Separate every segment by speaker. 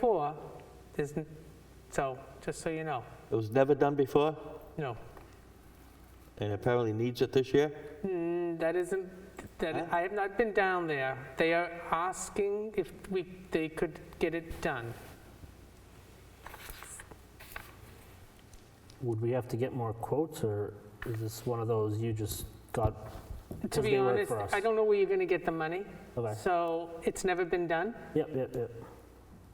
Speaker 1: Four, there's, n- so, just so you know,
Speaker 2: It was never done before,
Speaker 1: no.
Speaker 2: and apparently needs it this year.
Speaker 1: Mm, That isn't, that, I have not been down there. They are asking if we, they could get it done.
Speaker 3: Would we have to get more quotes, or is this one of those you just got?
Speaker 1: To
Speaker 3: because
Speaker 1: be
Speaker 3: they work
Speaker 1: honest,
Speaker 3: for us?
Speaker 1: I don't know where you're gonna get the money.
Speaker 3: Okay.
Speaker 1: So, it's never been done.
Speaker 3: Yep, yep, yep.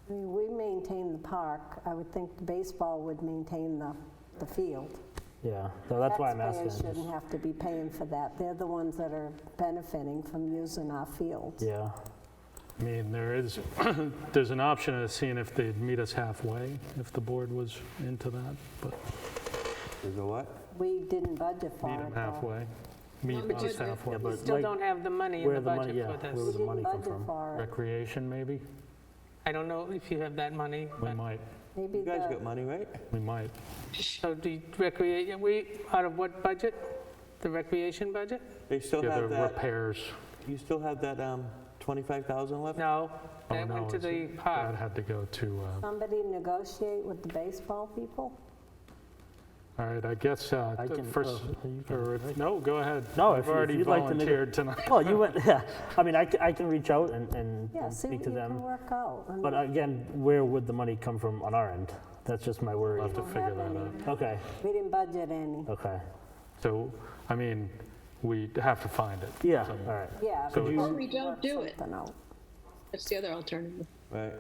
Speaker 4: I mean, we maintain the park. I would think the baseball would maintain the, the field.
Speaker 3: Yeah, so that's why I'm asking.
Speaker 4: Taxpayers shouldn't have to be paying for that. They're the ones that are benefiting from using our fields.
Speaker 3: Yeah,
Speaker 5: I mean, there is, there's an option of seeing if they'd meet us halfway, if the board was into that, but
Speaker 2: Is it what?
Speaker 4: We didn't budget for
Speaker 5: meet
Speaker 4: it.
Speaker 5: them
Speaker 4: though.
Speaker 5: halfway, meet us halfway.
Speaker 3: yeah,
Speaker 1: We
Speaker 3: but
Speaker 1: still
Speaker 3: like,
Speaker 1: don't have the money in
Speaker 3: where
Speaker 1: the
Speaker 3: the money-
Speaker 1: budget
Speaker 3: yeah,
Speaker 1: for this.
Speaker 3: where
Speaker 4: We
Speaker 3: was- the
Speaker 4: didn't
Speaker 3: money come
Speaker 4: budget
Speaker 3: from?
Speaker 4: for it.
Speaker 5: Recreation, maybe?
Speaker 1: I don't know if you have that money,
Speaker 5: We
Speaker 1: but,
Speaker 5: might,
Speaker 4: Maybe
Speaker 2: You guys got
Speaker 4: the,
Speaker 2: money, right?
Speaker 5: we might.
Speaker 1: so do you recreate, we, out of what budget? The recreation budget?
Speaker 2: They still
Speaker 5: Yeah, the
Speaker 2: have that,
Speaker 5: repairs,
Speaker 2: you still have that um, 25,000 left?
Speaker 1: No,
Speaker 5: Oh,
Speaker 1: that
Speaker 5: no,
Speaker 1: went to
Speaker 5: is
Speaker 1: the
Speaker 5: it- that
Speaker 1: park.
Speaker 5: had to go to, uh,
Speaker 4: somebody negotiate with the baseball people?
Speaker 5: all right, I guess, uh,
Speaker 3: I
Speaker 5: the
Speaker 3: can-
Speaker 5: first,
Speaker 3: oh, you can-
Speaker 5: or, no, go ahead.
Speaker 3: No,
Speaker 5: I've
Speaker 3: if you- if
Speaker 5: already
Speaker 3: you'd like to make a-
Speaker 5: volunteered tonight.
Speaker 3: well, you went, yeah, I mean, I ca- I can reach out and- and
Speaker 4: Yeah,
Speaker 3: and
Speaker 4: see
Speaker 3: Mm-hmm. speak
Speaker 4: what
Speaker 3: to
Speaker 4: you can
Speaker 3: them.
Speaker 4: work out. I
Speaker 3: But
Speaker 4: mean,
Speaker 3: again, where would the money come from on our end? That's just my worry.
Speaker 5: We'll have to
Speaker 4: don't
Speaker 5: figure
Speaker 4: have
Speaker 5: that
Speaker 4: any.
Speaker 5: out.
Speaker 3: Okay,
Speaker 4: We didn't budget any.
Speaker 3: okay,
Speaker 5: So, I mean, we have to find it.
Speaker 3: yeah, all
Speaker 5: Some-
Speaker 3: right.
Speaker 4: Yeah.
Speaker 5: So
Speaker 4: we
Speaker 5: it's-
Speaker 6: Or
Speaker 4: can
Speaker 6: we don't
Speaker 4: work
Speaker 6: do it.
Speaker 4: something out.
Speaker 6: That's the other alternative.
Speaker 2: Right.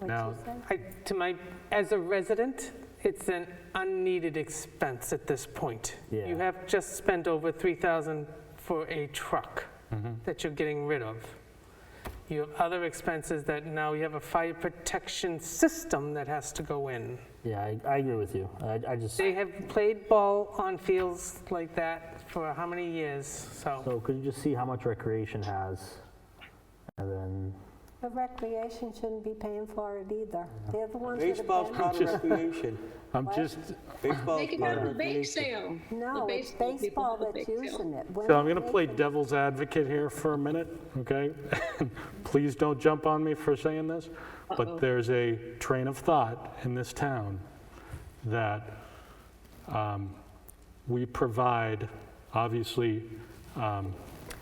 Speaker 4: What'd
Speaker 5: Now-
Speaker 4: you say?
Speaker 1: I- To my, as a resident, it's an unneeded expense at this point.
Speaker 3: Yeah.
Speaker 1: You have just spent over 3,000 for a truck that you're getting rid of. You have other expenses that now you have a fire protection system that has to go in.
Speaker 3: Yeah, I I agree with you. I I just,
Speaker 1: They have played ball on fields like that for how many years? So
Speaker 3: so could you just see how much recreation has? And then,
Speaker 4: The recreation shouldn't be paying for it either. They're the ones that are
Speaker 2: Baseball's
Speaker 4: benefiting.
Speaker 2: part of recreation.
Speaker 5: I'm just,
Speaker 2: Baseball's
Speaker 6: Make it
Speaker 2: part
Speaker 6: out
Speaker 2: of
Speaker 6: of a bake
Speaker 2: recreation.
Speaker 6: sale.
Speaker 4: No,
Speaker 6: The
Speaker 4: it's
Speaker 6: baseball people
Speaker 4: baseball
Speaker 6: have a
Speaker 4: that's
Speaker 6: bake sale.
Speaker 4: using it. We're
Speaker 5: So I'm going to
Speaker 4: not
Speaker 5: play
Speaker 4: making-
Speaker 5: devil's advocate here for a minute, okay? Please don't jump on me for saying this, but there's a train of thought in this town that um, we provide, obviously, um,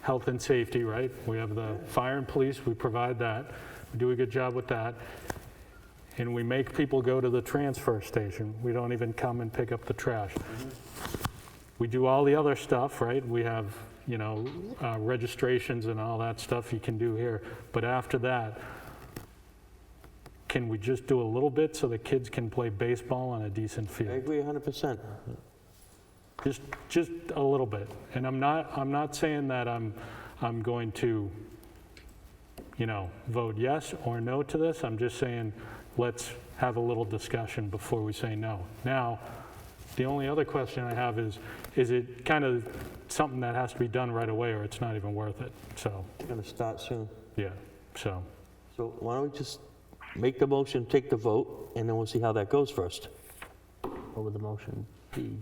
Speaker 5: health and safety, right? We have the fire and police, we provide that. We do a good job with that. And we make people go to the transfer station. We don't even come and pick up the trash. We do all the other stuff, right? We have, you know, uh, registrations and all that stuff you can do here. But after that, can we just do a little bit so the kids can play baseball on a decent
Speaker 2: I
Speaker 5: field?
Speaker 2: agree 100%.
Speaker 5: Just, just a little bit. And I'm not, I'm not saying that I'm, I'm going to, you know, vote yes or no to this. I'm just saying, let's have a little discussion before we say no. Now, the only other question I have is, is it kind of something that has to be done right away or it's not even worth it? So,
Speaker 2: It's going to start soon.
Speaker 5: yeah, so,
Speaker 2: So why don't we just make the motion, take the vote, and then we'll see how that goes first?
Speaker 3: what would the motion be?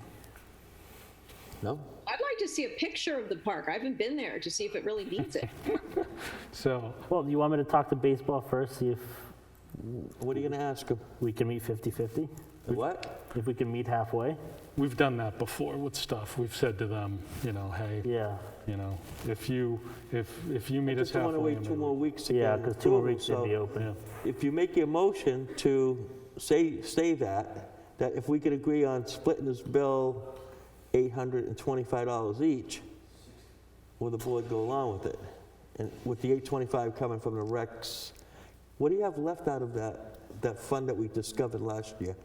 Speaker 2: No?
Speaker 6: I'd like to see a picture of the park. I haven't been there to see if it really needs it.
Speaker 5: so,
Speaker 3: Well, do you want me to talk to baseball first, see if
Speaker 2: What are you going to ask him?
Speaker 3: we can meet 50/50?
Speaker 2: What?
Speaker 3: If we can meet halfway?
Speaker 5: we've done that before with stuff. We've said to them, you know, hey,
Speaker 3: Yeah,
Speaker 5: you know, if you, if, if you meet us
Speaker 2: Just don't want to
Speaker 5: halfway. I
Speaker 2: wait two
Speaker 5: mean,
Speaker 2: more weeks to get
Speaker 3: yeah,
Speaker 2: an
Speaker 3: because two more
Speaker 2: approval,
Speaker 3: weeks they'd be
Speaker 2: so-
Speaker 3: open.
Speaker 5: Yeah.
Speaker 2: if you make your motion to say, say that, that if we could agree on splitting this bill $825 each, will the board go along with it? And with the 825 coming from the recs, what do you have left out of that, that fund that we discovered last year?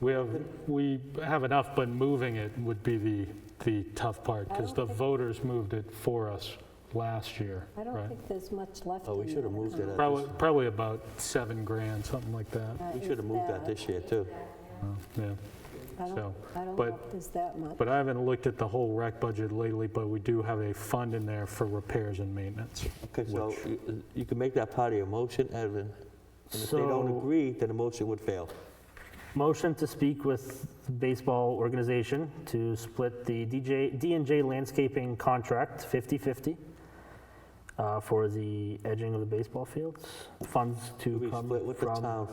Speaker 5: We have, we have enough, but moving it would be the, the tough part, because the voters moved it for us last year,
Speaker 4: I don't
Speaker 5: right?
Speaker 4: think there's much left.
Speaker 2: Oh, we
Speaker 4: in
Speaker 2: should have
Speaker 4: that
Speaker 2: moved it.
Speaker 4: account.
Speaker 2: at
Speaker 5: Probably,
Speaker 2: this-
Speaker 5: probably about seven grand, something like that,
Speaker 4: Uh,
Speaker 2: We
Speaker 4: is
Speaker 2: should have moved that this year, too.
Speaker 5: yeah.
Speaker 4: I don't,
Speaker 5: so,
Speaker 4: I don't
Speaker 5: but-
Speaker 4: know if there's that much.
Speaker 5: But I haven't looked at the whole rec budget lately, but we do have a fund in there for repairs and maintenance.
Speaker 2: Okay, so you- you can make that part of your motion, Evan. And if they don't
Speaker 3: So-
Speaker 2: agree, then the motion would fail.
Speaker 3: Motion to speak with the baseball organization to split the DJ, D&J landscaping contract 50/50. Uh, uh, for the edging of the baseball fields, funds to
Speaker 2: We
Speaker 3: come
Speaker 2: split with the
Speaker 3: from
Speaker 2: town